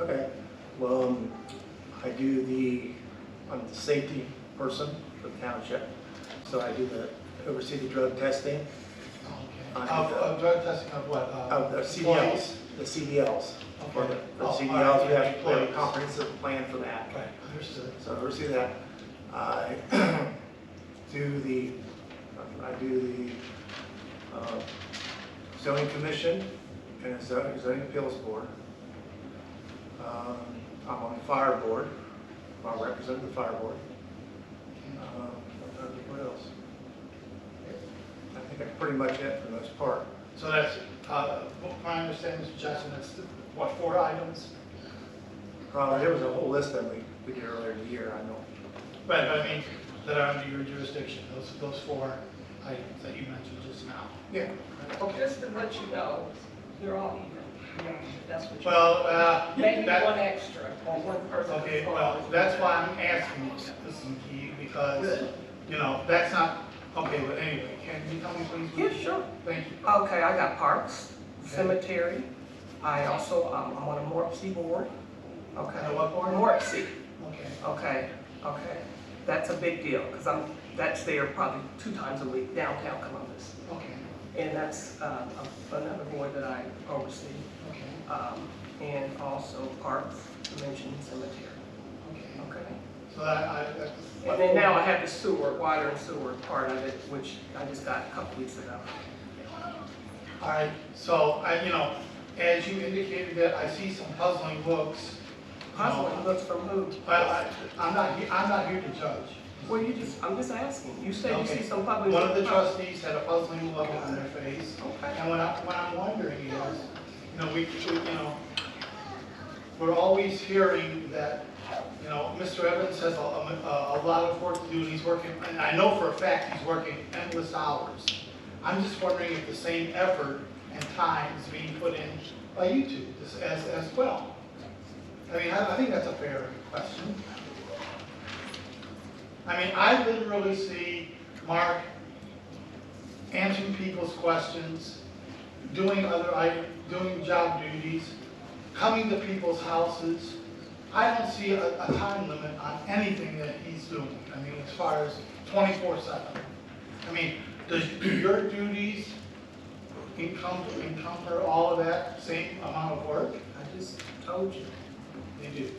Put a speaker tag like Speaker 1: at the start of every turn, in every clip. Speaker 1: Okay, well, um, I do the, I'm the safety person for the township, so I do the, oversee the drug testing
Speaker 2: Okay.
Speaker 1: I
Speaker 2: Of,
Speaker 1: have that.
Speaker 2: of drug testing of what? Uh,
Speaker 1: of the
Speaker 2: employees?
Speaker 1: CDLs, the CDLs. For the
Speaker 2: Okay.
Speaker 1: for the
Speaker 2: Oh,
Speaker 1: CDLs, we
Speaker 2: alright,
Speaker 1: have we have a
Speaker 2: employees.
Speaker 1: comprehensive plan for that.
Speaker 2: Right, understood.
Speaker 1: So I oversee that. I do the, I do the uh, zoning commission and zoning zoning appeals board. Um, I'm on the fire board, I represent the fire board. Um, What else? I think that's pretty much it for the most part.
Speaker 2: So that's, uh, what my understanding, Mr. Jackson, that's, the- what, four items?
Speaker 1: Probably, Uh, there was a whole list that we, we did earlier in the year, I know.
Speaker 2: Right, but I mean, that are under your jurisdiction, those, those four items that you mentioned just now.
Speaker 1: Yeah.
Speaker 3: Just to let you know, they're all even. Yeah, That's what you.
Speaker 2: Well, uh,
Speaker 3: Maybe one
Speaker 2: that,
Speaker 3: extra, or one person.
Speaker 2: okay, well, that's why I'm asking this, this is key, because,
Speaker 3: Good.
Speaker 2: you know, that's not, okay, but anyway, can you tell me please?
Speaker 3: Yeah, sure.
Speaker 2: Thank you.
Speaker 3: Okay, I got parks, cemetery. I also, um, I'm on a Morpsey board. Okay.
Speaker 2: On a what board?
Speaker 3: Morpsey.
Speaker 2: Okay.
Speaker 3: Okay, okay. That's a big deal, because I'm, that's there probably two times a week downtown Columbus.
Speaker 2: Okay,
Speaker 3: And that's, uh, a- another board that I oversee.
Speaker 2: okay,
Speaker 3: Um, and also parks, mentioned cemetery.
Speaker 2: okay.
Speaker 3: Okay.
Speaker 2: So that, I, that's.
Speaker 3: And then now I have the sewer, water and sewer part of it, which I just got a couple weeks ago.
Speaker 2: All right, so I, you know, as you indicated that I see some puzzling looks. you know,
Speaker 3: Possibly looks from who?
Speaker 2: I, I, I'm not, he- I'm not here to judge.
Speaker 3: Well, you just, I'm just asking. You said you
Speaker 2: Okay.
Speaker 3: see some public.
Speaker 2: One of the trustees had a puzzling look on their face.
Speaker 3: Okay.
Speaker 2: And what I, what I'm wondering is, you know, we, we- you know, we're always hearing that, you know, Mr. Evans has a, a, a lot of work to do, and he's working, and I know for a fact he's working endless hours. I'm just wondering if the same effort and time is being put in by you two as, as as well. I mean, I, I think that's a fair question. I mean, I literally see Mark answering people's questions, doing other, i- doing job duties, coming to people's houses. I don't see a, a time limit on anything that he's doing, I mean, as far as twenty-four seven. I mean, does, do your duties encumber, encumber all of that same amount of work?
Speaker 3: I just told you.
Speaker 2: They do.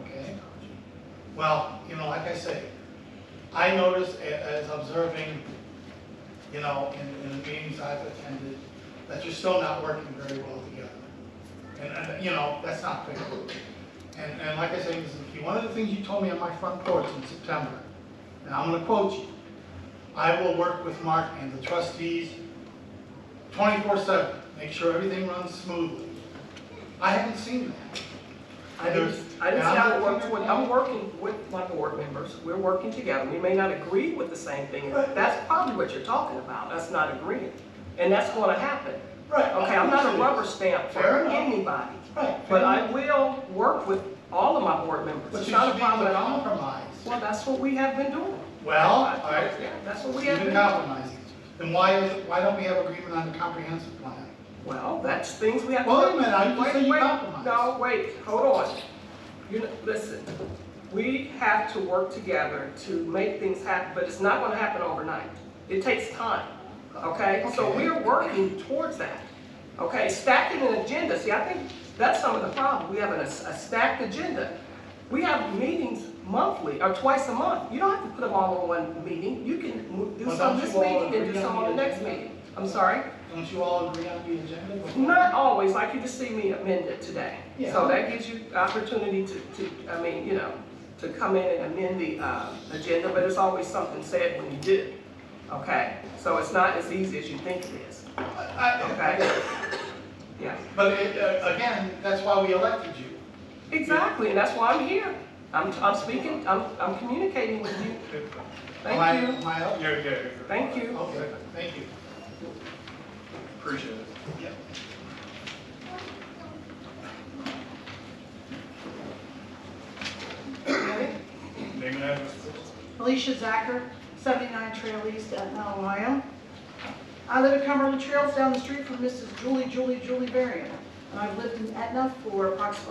Speaker 2: Okay. Well, you know, like I say, I notice a- as observing, you know, in, in the meetings I've attended, that you're still not working very well together. And, and, you know, that's not fair. And, and like I say, Mrs. McKee, one of the things you told me on my front porch in September, and I'm gonna quote you, "I will work with Mark and the trustees twenty-four seven, make sure everything runs smoothly." I haven't seen that.
Speaker 3: I didn't, I didn't say I worked with, I'm working with my board members. We're working together. We may not agree with the same thing. That's probably what you're talking about, us not agreeing. And that's gonna happen.
Speaker 2: Right,
Speaker 3: Okay, I'm not a rubber stamp
Speaker 2: Fair
Speaker 3: for
Speaker 2: enough.
Speaker 3: anybody.
Speaker 2: Right.
Speaker 3: But I will work with all of my board members.
Speaker 2: But you
Speaker 3: It's
Speaker 2: should be
Speaker 3: not a problem
Speaker 2: able
Speaker 3: at
Speaker 2: to
Speaker 3: all.
Speaker 2: compromise.
Speaker 3: Well, that's what we have been doing.
Speaker 2: Well, all right,
Speaker 3: Yeah, That's what we
Speaker 2: you've
Speaker 3: have
Speaker 2: been
Speaker 3: been doing.
Speaker 2: compromising. Then why is, why don't we have agreement on the comprehensive plan?
Speaker 3: Well, that's things we have to.
Speaker 2: Well, wait a
Speaker 3: do.
Speaker 2: minute, I just
Speaker 3: Wait,
Speaker 2: said you
Speaker 3: wait.
Speaker 2: compromised.
Speaker 3: No, wait, hold on. You, know, listen, we have to work together to make things happen, but it's not gonna happen overnight. It takes time, okay? So
Speaker 2: Okay.
Speaker 3: we're working towards that, okay? Stacking an agenda, see, I think that's some of the problem. We have a, a stacked agenda. We have meetings monthly or twice a month. You don't have to put them all in one meeting. You can mo- do
Speaker 2: Well,
Speaker 3: some
Speaker 2: don't
Speaker 3: this
Speaker 2: you all
Speaker 3: meeting and do
Speaker 2: agree
Speaker 3: some
Speaker 2: on
Speaker 3: on the
Speaker 2: the
Speaker 3: next
Speaker 2: agenda?
Speaker 3: meeting. I'm sorry?
Speaker 2: Don't you all agree on the agenda?
Speaker 3: Not always, like you just see me amend it today.
Speaker 2: Yeah.
Speaker 3: So that gives you opportunity to, to, I mean, you know, to come in and amend the, uh, agenda, but there's always something said when you do. Okay, so it's not as easy as you think it is,
Speaker 2: I- I-
Speaker 3: okay? Yeah,
Speaker 2: But it, uh, again, that's why we elected you.
Speaker 3: exactly, and that's why I'm here. I'm, I'm speaking, I'm, I'm communicating with you.
Speaker 2: Am I-
Speaker 3: Thank you,
Speaker 2: Am I up?
Speaker 4: Yeah, yeah, yeah.
Speaker 3: thank you.
Speaker 2: Okay, thank you.
Speaker 4: Appreciate it.
Speaker 3: Okay.
Speaker 4: Name and address.
Speaker 5: Alicia Zacher, 79 Trail East, Etna, Ohio. I live at Cumberland Trails down the street from Mrs. Julie Julie Julie Varian, and I've lived in Etna for approximately